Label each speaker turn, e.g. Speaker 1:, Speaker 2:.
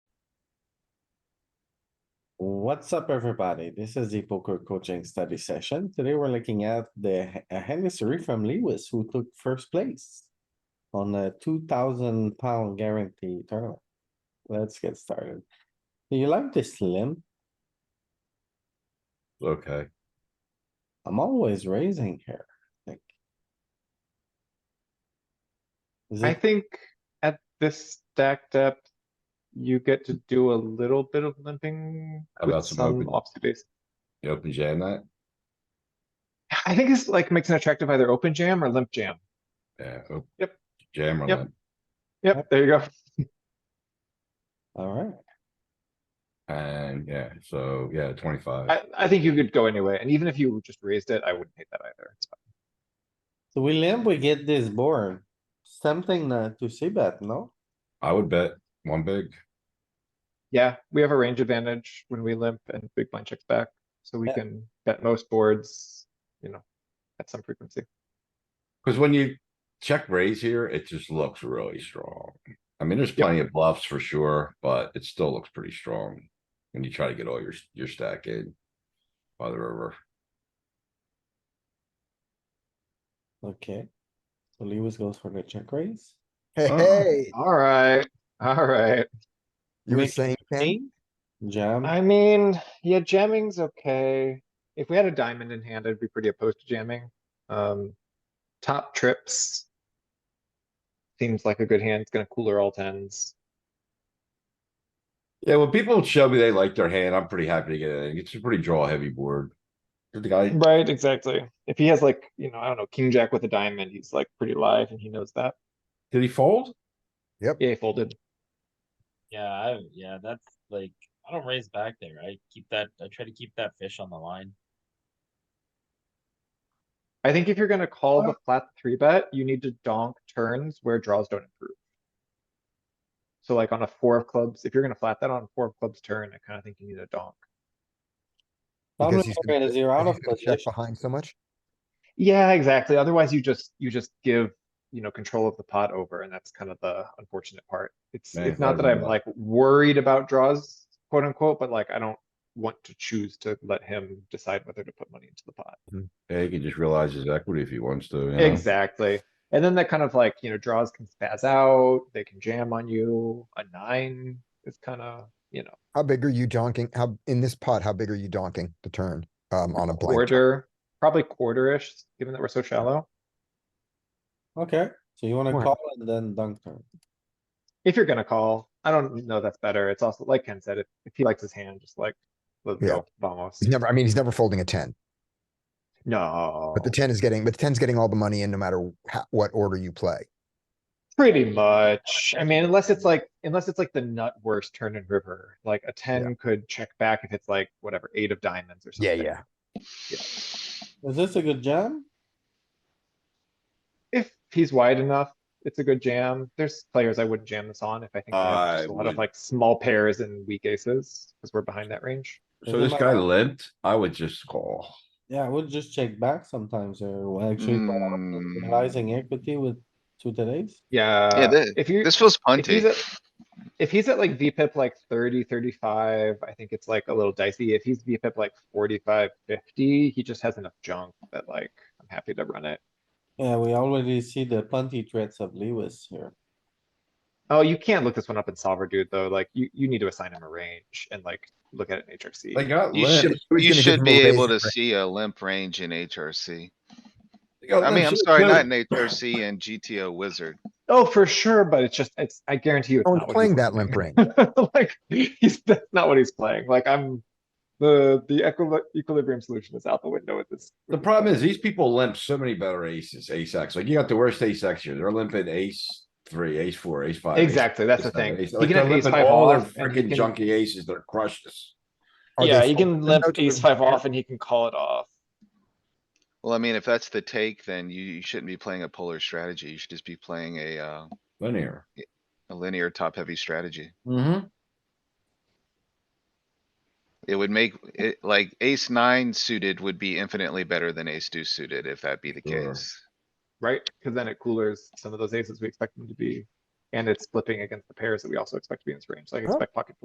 Speaker 1: What's up, everybody? This is the poker coaching study session. Today we're looking at the a hand history from Lewis who took first place on a two thousand pound guarantee tournament. Let's get started. Do you like this limp?
Speaker 2: Okay,
Speaker 1: I'm always raising here, like. Is
Speaker 3: I
Speaker 1: it,
Speaker 3: think at this stacked up, you get to do a little bit of limping
Speaker 2: How
Speaker 3: with
Speaker 2: about some
Speaker 3: some
Speaker 2: open?
Speaker 3: offsuit ace.
Speaker 2: you open jam that?
Speaker 3: I think this like makes an attractive either open jam or limp jam.
Speaker 2: Yeah. op-
Speaker 3: Yep.
Speaker 2: Jam on
Speaker 3: Yep.
Speaker 2: that.
Speaker 3: Yep, there you go.
Speaker 1: alright,
Speaker 2: And yeah, so yeah, twenty-five.
Speaker 3: I, I think you could go anyway, and even if you just raised it, I wouldn't hate that either. It's fine.
Speaker 1: so we limp, we get this board. Something not to see bet, no?
Speaker 2: I would bet one big.
Speaker 3: Yeah, we have a range advantage when we limp and big blind checks back, so we
Speaker 1: Yeah.
Speaker 3: can bet most boards, you know, at some frequency.
Speaker 2: Cause when you check raise here, it just looks really strong. I mean, there's plenty of bluffs for sure, but it still looks pretty strong. When you try to get all your, your stack in. By the river.
Speaker 1: Okay. So Lewis goes for the check raise.
Speaker 4: Hey,
Speaker 2: Oh.
Speaker 4: hey,
Speaker 3: Alright, alright.
Speaker 4: you were
Speaker 1: Make
Speaker 4: saying ten?
Speaker 1: King, Jam.
Speaker 3: I mean, yeah, jamming's okay. If we had a diamond in hand, I'd be pretty opposed to jamming. Um, top trips. Seems like a good hand. It's gonna cooler all tens.
Speaker 2: Yeah, when people show me they like their hand, I'm pretty happy to get it. in. It's a pretty draw heavy board. The guy,
Speaker 3: Right, exactly. If he has like, you know, I don't know, king jack with a diamond, he's like pretty live and he knows that.
Speaker 2: did he fold?
Speaker 3: Yeah, he folded.
Speaker 5: Yeah, I, yeah, that's like I don't raise back there. I keep that. I try to keep that fish on the line.
Speaker 3: I think if you're gonna call the flat three bet, you need to donk turns where draws don't improve. So like on a four of clubs, if you're gonna flat that on a four of clubs turn, I kinda think you need a donk.
Speaker 1: Probably
Speaker 4: Because he's
Speaker 1: gonna
Speaker 4: gonna-
Speaker 1: zero out of
Speaker 4: because he's gonna check
Speaker 1: position.
Speaker 4: behind so much.
Speaker 3: Yeah, exactly. Otherwise, you just, you just give, you know, control of the pot over, and that's kind of the unfortunate part. It's,
Speaker 2: Yeah,
Speaker 3: it's not that
Speaker 2: probably
Speaker 3: I'm
Speaker 2: not.
Speaker 3: like worried about draws, quote unquote, but like I don't want to choose to let him decide whether to put money into the pot.
Speaker 2: Yeah, he can just realize his equity if he wants to. you know?
Speaker 3: Exactly. And then that kind of like, you know, draws can spaz out, they can jam on you. A nine is kind of, you know,
Speaker 4: How big are you donking? How, in this pot, how big are you donking the turn? Um, on a blind, check?
Speaker 3: quarter, probably quarter-ish, given that we're so shallow.
Speaker 1: Okay, so you wanna
Speaker 3: Right.
Speaker 1: call and then dunk turn.
Speaker 3: If you're gonna call, I don't know that's better. It's also like Ken said, if, if he likes his hand, just like, let's
Speaker 4: Yeah.
Speaker 3: go, vamos.
Speaker 4: he's never, I mean, he's never folding a ten,
Speaker 3: No,
Speaker 4: but the ten is getting, but the ten's getting all the money in no matter ho- what order you play.
Speaker 3: pretty much. I mean, unless it's like, unless it's like the nut worst turn and river, like a ten could check back if it's like whatever, eight of diamonds or something.
Speaker 1: Is this a good jam?
Speaker 3: If he's wide enough, it's a good jam. There's players I wouldn't jam this on if I think they have
Speaker 2: I
Speaker 3: just a lot of
Speaker 2: would-
Speaker 3: like small pairs and weak aces, because we're behind that range.
Speaker 2: So
Speaker 1: Isn't
Speaker 2: this
Speaker 1: that
Speaker 2: guy
Speaker 1: right?
Speaker 2: limped, I would just call.
Speaker 1: Yeah, I would just check back sometimes or well, actually quite often,
Speaker 6: Mm.
Speaker 1: realizing equity with two today's.
Speaker 6: Yeah,
Speaker 3: Yeah,
Speaker 6: thi-
Speaker 3: if you,
Speaker 6: This feels
Speaker 3: If he's
Speaker 6: punty.
Speaker 3: at, if he's at like VPIP like 30, 35, I think it's like a little dicey. If he's VPIP like 45, 50, he just has enough junk that like, I'm happy to run it.
Speaker 1: Yeah, we already see the plenty threats of Lewis here.
Speaker 3: Oh, you can't look this one up in solver, dude, though. Like you, you need to assign him a range and like, look at it in
Speaker 2: They
Speaker 3: HRC.
Speaker 2: got
Speaker 6: You
Speaker 2: limped.
Speaker 6: should,
Speaker 4: Who's
Speaker 6: you
Speaker 4: gonna give him
Speaker 6: should
Speaker 4: a
Speaker 6: be
Speaker 4: raise
Speaker 6: able to
Speaker 4: and break?
Speaker 6: see a limp range in HRC.
Speaker 2: They got
Speaker 6: I mean,
Speaker 2: limped,
Speaker 6: I'm
Speaker 2: shit,
Speaker 6: sorry,
Speaker 2: too.
Speaker 6: not in HRC and GTO Wizard.
Speaker 3: Oh, for sure, but it's just, it's, I guarantee you. it's
Speaker 4: No
Speaker 3: not
Speaker 4: one's
Speaker 3: what
Speaker 4: playing
Speaker 3: he's
Speaker 4: that limp range.
Speaker 3: Like, he's, that's not what he's playing. Like I'm, the, the equi- equilibrium solution is out the window with this.
Speaker 2: The problem is these people limp so many better aces, ace X. Like you got the worst ace X here. They're limping ace three, ace four, ace five. ace
Speaker 3: Exactly, that's the
Speaker 2: six, seven,
Speaker 3: thing.
Speaker 2: ace-
Speaker 3: He
Speaker 2: Like
Speaker 3: can
Speaker 2: they're
Speaker 3: have ace
Speaker 2: limping
Speaker 3: five
Speaker 2: all their
Speaker 3: off and he
Speaker 2: freaking
Speaker 3: can-
Speaker 2: junky aces. They're crushed us.
Speaker 4: Are
Speaker 3: Yeah,
Speaker 4: they
Speaker 3: you can
Speaker 4: folding?
Speaker 3: limp
Speaker 4: No
Speaker 3: ace
Speaker 4: turn.
Speaker 3: five off and he can call it off.
Speaker 6: Well, I mean, if that's the take, then you, you shouldn't be playing a polar strategy. You should just be playing a, uh,
Speaker 2: Linear.
Speaker 6: a linear top-heavy strategy.
Speaker 2: Mm-hmm.
Speaker 6: It would make it like ace nine suited would be infinitely better than ace two suited if that be the
Speaker 2: Sure.
Speaker 6: case.
Speaker 3: Right? Cause then it coolers some of those aces we expect them to be. And it's flipping against the pairs that we also expect to be in this range. So I expect pocket